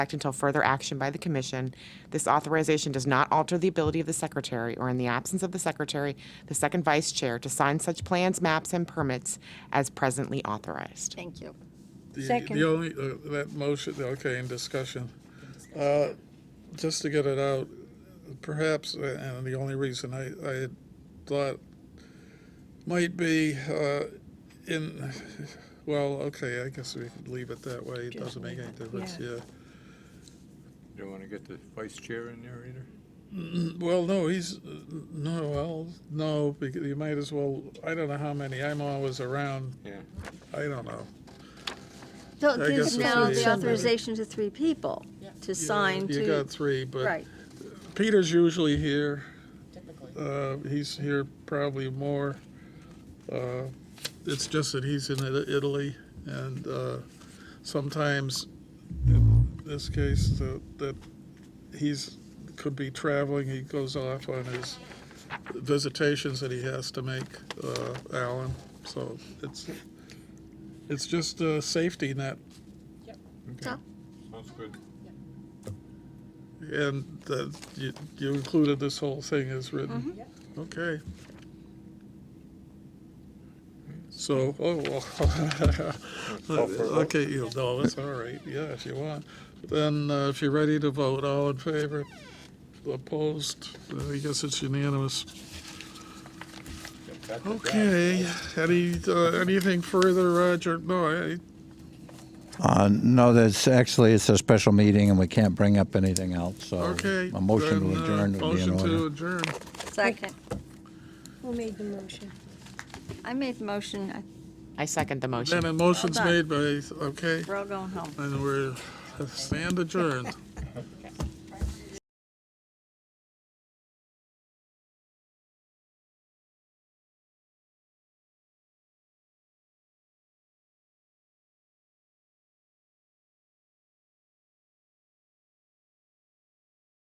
effect until further action by the commission. This authorization does not alter the ability of the secretary, or in the absence of the secretary, the second vice chair, to sign such plans, maps, and permits as presently authorized. Thank you. The- Second. The only, uh, that motion, okay, in discussion. Uh, Just to get it out, perhaps, uh, and the only reason I, I had thought might be uh, in, well, okay, I guess we could leave it that way. It doesn't make any difference, yeah. You want to get the vice chair in there either? Well, no, he's, no, well, no, because you might as well, I don't know how many, I'm always around, Yeah. I don't know. So I it gives guess it's now three, the yeah. authorization to three people to sign You got to, three, but. right. Peter's usually here. Uh, he's here probably more. Uh, it's just that he's in Ita- Italy, and uh, sometimes, in this case, uh, that he's could be traveling. He goes off on his visitations that he has to make, uh, Alan. So it's it's just a safety net So, Sounds good. And the, you, you included this whole thing as written? Okay. So, oh, well. Okay, you know, it's all right, yeah, if you want. Then, uh, if you're ready to vote, all in favor, opposed, I guess it's unanimous. Okay, any, uh, anything further, Roger? No, I, Uh, No, that's, actually, it's a special meeting, and we can't bring up anything else, so. okay. A motion then, to uh, adjourn would be in Motion to order. adjourn. second, Who made the motion? I made the motion, I- I second the motion. Then a motion's done. made by, okay. we're all going home. And we're stand adjourned.